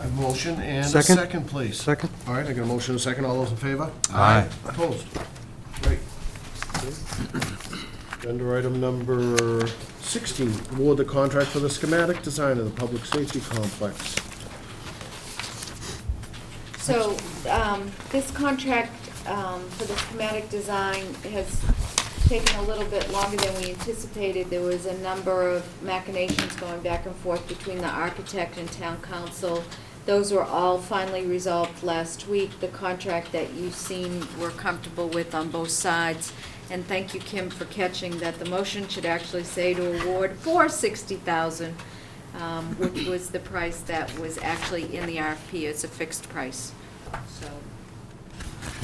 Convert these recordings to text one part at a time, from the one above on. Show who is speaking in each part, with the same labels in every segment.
Speaker 1: A motion and a
Speaker 2: Second.
Speaker 1: second, please.
Speaker 2: Second?
Speaker 1: All right, I got a motion and a second. All those in favor?
Speaker 3: Aye.
Speaker 1: Opposed? Great. Agenda item number 16, award the contract for the schematic design of the public safety complex.
Speaker 4: So, um, this contract, um, for the schematic design has taken a little bit longer than we anticipated. There was a number of machinations going back and forth between the architect and town council. Those were all finally resolved last week. The contract that you seem were comfortable with on both sides. And thank you, Kim, for catching that the motion should actually say to award for sixty thousand um, which was the price that was actually in the RFP. It's a fixed price, so.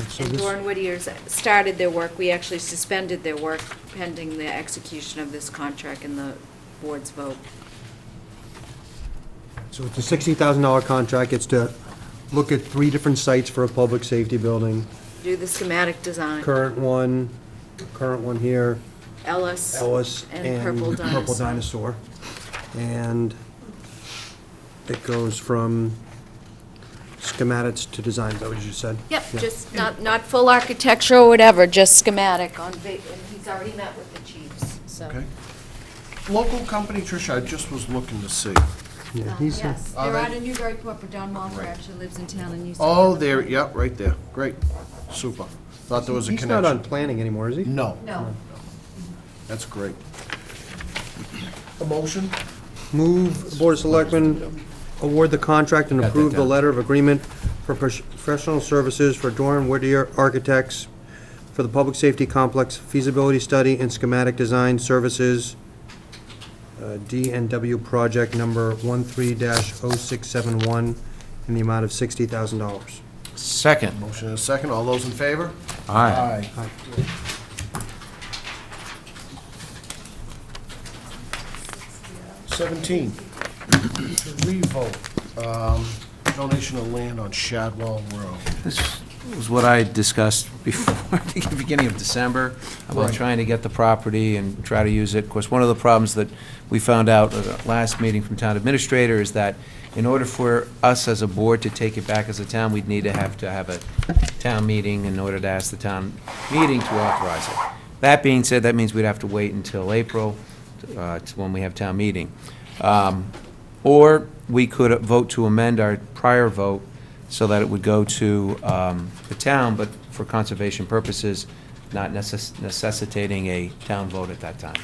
Speaker 2: So
Speaker 4: And
Speaker 2: this-
Speaker 4: Dorn Whittier's started their work. We actually suspended their work pending the execution of this contract and the board's vote.
Speaker 2: So it's a sixty thousand dollar contract, it's to look at three different sites for a public safety building.
Speaker 4: Do the schematic design,
Speaker 2: Current one, current one here,
Speaker 4: Ellis.
Speaker 2: Ellis and
Speaker 4: Purple Dinosaur.
Speaker 2: Purple Dinosaur. And it goes from schematics to designs, is that what you just said?
Speaker 4: Yep,
Speaker 2: Yeah.
Speaker 4: just not, not full architecture or whatever, just schematic on, va- and he's already met with the chiefs, so.
Speaker 1: Okay. Local company, Tricia, I just was looking to see.
Speaker 2: Yeah,
Speaker 4: Um,
Speaker 2: he's, uh,
Speaker 4: Yes,
Speaker 1: Are
Speaker 4: they're
Speaker 1: they-
Speaker 4: out of Newburyport, but Don Walter actually lives in town and used to.
Speaker 1: Oh,
Speaker 4: live in
Speaker 1: there,
Speaker 4: town.
Speaker 1: yep, right there. Great. Super. Thought there was a
Speaker 2: he's
Speaker 1: connection.
Speaker 2: not on planning anymore, is he?
Speaker 1: No.
Speaker 4: No.
Speaker 1: That's great. A motion?
Speaker 2: Move the Board of Selectmen award the contract and
Speaker 3: Got that
Speaker 2: approve the
Speaker 3: down.
Speaker 2: letter of agreement for pros- professional services for Doran Whittier Architects for the Public Safety Complex feasibility study and schematic design services, uh, DNW project number 13-0671, in the amount of $60,000.
Speaker 3: Second.
Speaker 1: Motion and a second. All those in favor?
Speaker 3: Aye.
Speaker 1: Aye. Seventeen, to revote, um, donation of land on Shadwell Road.
Speaker 3: This was what I discussed before, at the beginning of December, about
Speaker 1: Right.
Speaker 3: trying to get the property and try to use it. Of course, one of the problems that we found out at the last meeting from town administrator is that in order for us as a board to take it back as a town, we'd need to have to have a town meeting in order to ask the town meeting to authorize it. That being said, that means we'd have to wait until April, uh, to when we have town meeting. Um, Or we could vote to amend our prior vote so that it would go to um, the town, but for conservation purposes, not necess- necessitating a town vote at that time.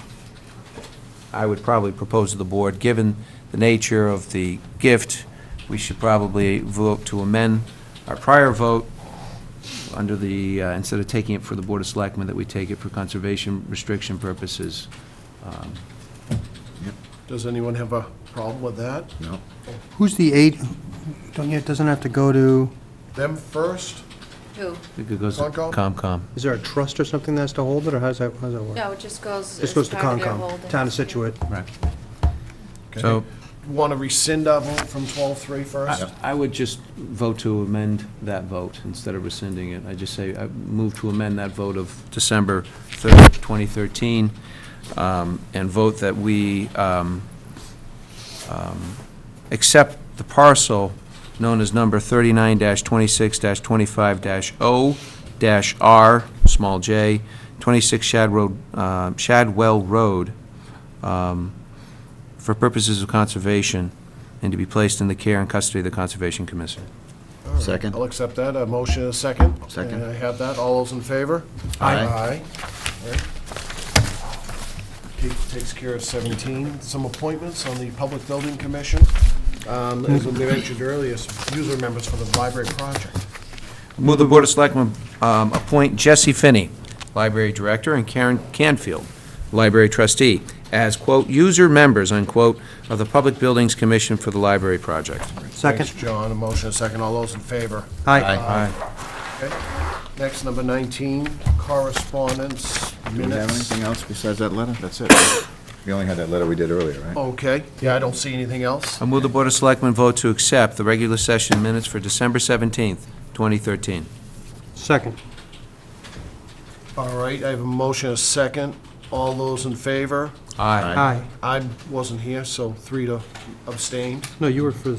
Speaker 3: I would probably propose to the board, given the nature of the gift, we should probably vote to amend our prior vote under the, uh, instead of taking it for the Board of Selectmen, that we take it for conservation restriction purposes. Um,
Speaker 1: Does anyone have a problem with that?
Speaker 5: No.
Speaker 2: Who's the eight, don't you, it doesn't have to go to,
Speaker 1: Them first?
Speaker 4: Who?
Speaker 3: I think it goes to
Speaker 1: Concom?
Speaker 3: Comcom.
Speaker 2: is there a trust or something that has to hold it, or how's that, how's that work?
Speaker 4: No, it just goes.
Speaker 2: This
Speaker 4: as
Speaker 2: goes to
Speaker 4: part of their
Speaker 2: Concom,
Speaker 4: holdings.
Speaker 2: Town of Situate.
Speaker 3: Right.
Speaker 1: Okay.
Speaker 3: So-
Speaker 1: Want to rescind our vote from twelve-three first?
Speaker 3: I- I would just vote to amend that vote instead of rescinding it. I just say, I move to amend that vote of December 3rd, 2013, um, and vote that we um, um, accept the parcel known as number 39-26-25-0-R, small j, 26 Shad Road, uh, Shadwell Road, um, for purposes of conservation, and to be placed in the care and custody of the Conservation Commission.
Speaker 5: Second.
Speaker 1: I'll accept that. A motion and a second.
Speaker 5: Second.
Speaker 1: And I have that. All those in favor?
Speaker 5: Aye.
Speaker 1: Aye. All right. Keith Takes care of 17. Some appointments on the Public Building Commission. Um, As we mentioned earlier, some user members for the library project.
Speaker 3: Move the Board of Selectmen um, appoint Jesse Finney, Library Director, and Karen Canfield, Library Trustee, as, quote, "user members," unquote, of the Public Buildings Commission for the Library Project.
Speaker 2: Second.
Speaker 1: Thanks, John. A motion and a second. All those in favor?
Speaker 2: Aye.
Speaker 1: Okay. Next, number 19, correspondence,
Speaker 5: Do we have
Speaker 1: minutes.
Speaker 5: anything else besides that letter? That's it. We only had that letter we did earlier, right?
Speaker 1: Okay. Yeah, I don't see anything else.
Speaker 5: Oh.
Speaker 3: I move the Board of Selectmen vote to accept the regular session minutes for December 17th, 2013.
Speaker 2: Second.
Speaker 1: All right, I have a motion and a second. All those in favor?
Speaker 3: Aye.
Speaker 2: Aye.
Speaker 1: I wasn't here, so three to abstain.
Speaker 2: No, you were for the